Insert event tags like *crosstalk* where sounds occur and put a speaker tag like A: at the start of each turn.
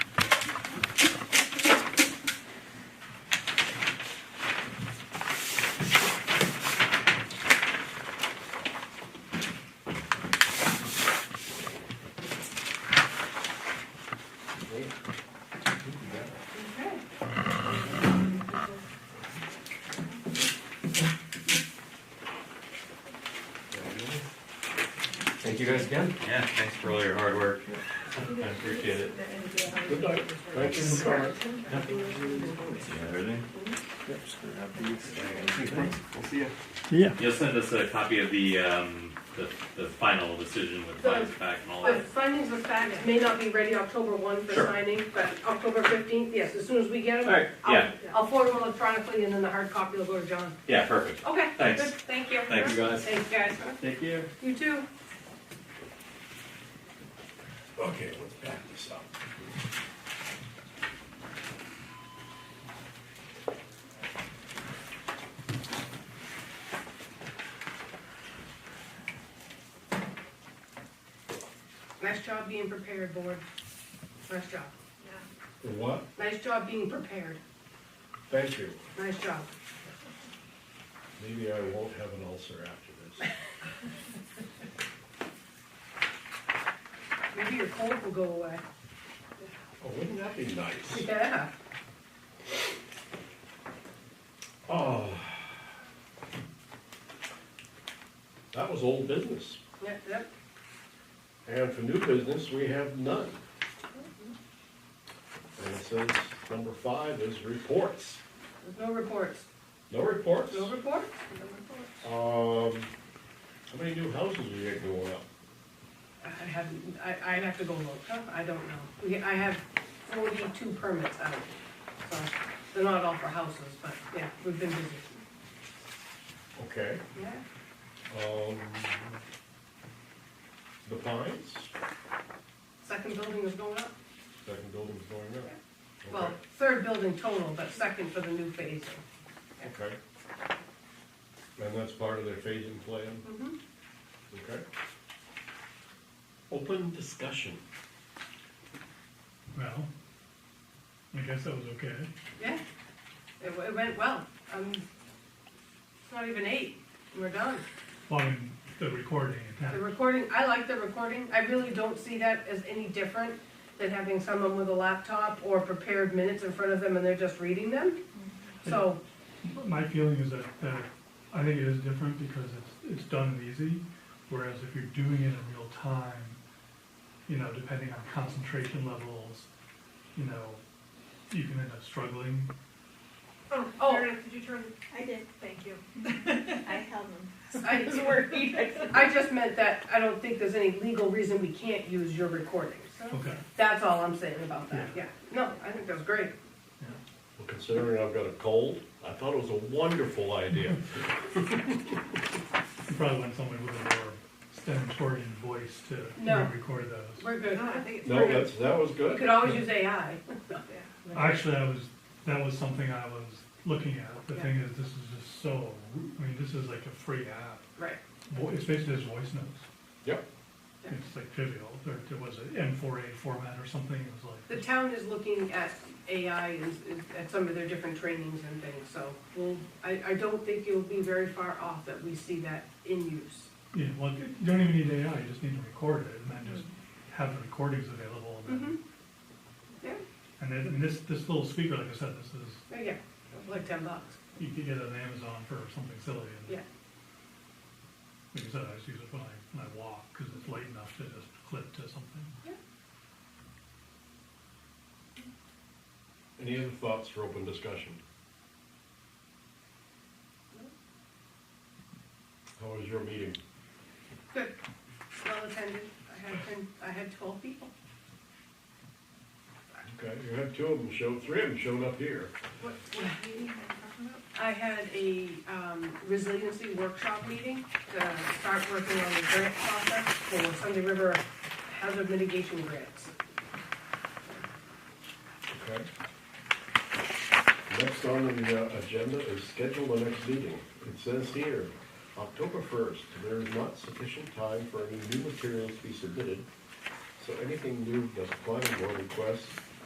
A: you guys again.
B: Yeah, thanks for all your hard work. I appreciate it.
C: Good night. Thank you for coming.
B: You got everything?
A: We'll see you.
D: Yeah,
B: You'll send us a copy of the, um, the, the final decision with
E: So-
B: findings of fact and all
E: The
B: that.
E: findings of fact may not be ready October one for
B: Sure.
E: signing, but October fifteenth, yes, as soon as we get them.
B: All right,
E: I'll-
B: yeah.
E: I'll forward them electronically and then the hard copy will go to John.
B: Yeah, perfect.
E: Okay,
B: Thanks.
E: good, thank you.
B: Thank you, guys.
E: Thanks, guys.
B: Thank you.
E: You too.
C: Okay, let's back this up.
E: Nice job being prepared, board. Nice job.
C: What?
E: Nice job being prepared.
C: Thank you.
E: Nice job.
C: Maybe I won't have an ulcer after this.
E: Maybe your cold will go away.
C: Oh, wouldn't that be nice?
E: Yeah.
C: Oh. That was old business.
E: Yep, yep.
C: And for new business, we have none. And it says, number five is reports.
E: There's no reports.
C: No reports?
E: No reports?
C: Um, how many new houses are you going up?
E: I haven't, I, I'd have to go look, Huh? I don't know. We, I have forty-two permits out, so they're not all for houses, but yeah, we've been busy.
C: Okay,
E: Yeah,
C: um, the Pines,
E: second building is going up.
C: second building's going up.
E: Well, third building total, but second for the new phase.
C: Okay. okay. And that's part of their phasing plan,
E: Mhm.
C: okay? Open discussion.
D: well, I guess that was okay.
E: Yeah, it, w- it went well. Um, it's not even eight, we're done.
D: Following the recording and
E: The
D: that.
E: recording, I like the recording, I really don't see that as any different than having someone with a laptop or prepared minutes in front of them and they're just reading them. So,
D: But My feeling is that, that I think it is different because it's, it's done and easy, whereas if you're doing it in real time, you know, depending on concentration levels, you know, you can end up struggling.
E: Oh.
F: Oh, Meredith, did you turn, I did, thank you. I held them. *laughs*
E: I, I just meant that I don't think there's any legal reason we can't use your recordings.
D: Okay.
E: That's all I'm saying about that, yeah. No, I think that's great.
C: Well, considering I've got a cold, I thought it was a wonderful *laughs* idea.
D: You probably want someone with a more stentorian voice to you know,
E: No.
D: record those.
E: We're good.
F: No, I think it's
C: No,
F: perfect.
C: that's, that was
E: We
C: good.
E: could always use
F: *laughs*
E: AI.
D: Actually, I was, that was something I was looking at. The thing is, this is just so, I mean, this is like a free app.
E: Right.
D: Vo- It's basically just voice notes.
C: Yep.
D: It's like trivial. There, there was an M4A format or something. It was
E: The
D: like,
E: town is looking at AI and, and at some of their different trainings and things, so we'll, I, I don't think you'll be very far off that we see that in use.
D: yeah, well, you don't even need AI, you just need to record it and then just have the recordings available. and then-
E: Mm-hmm. Yeah,
D: And then, and this, this little speaker, like I said, this is,
E: there you go, like ten bucks.
D: you could get it on Amazon for something silly. and
E: Yeah.
D: Like I said, I just use it when I, when I walk, cause it's light enough to just clip to something.
C: Any other thoughts for open discussion? How was your meeting?
E: Good, well attended, I had ten, I had twelve people.
C: Okay, you had two of them show, three of them showed up here.
E: What, what
F: What meeting are you talking about?
E: I had a um, resiliency workshop meeting to start working on the grant process for Sunday River hazard mitigation grants.
C: Okay. Next on the uh, agenda is schedule the next meeting. It says here, October first, there is not sufficient time for any new materials to be submitted, so anything new that the planning board requests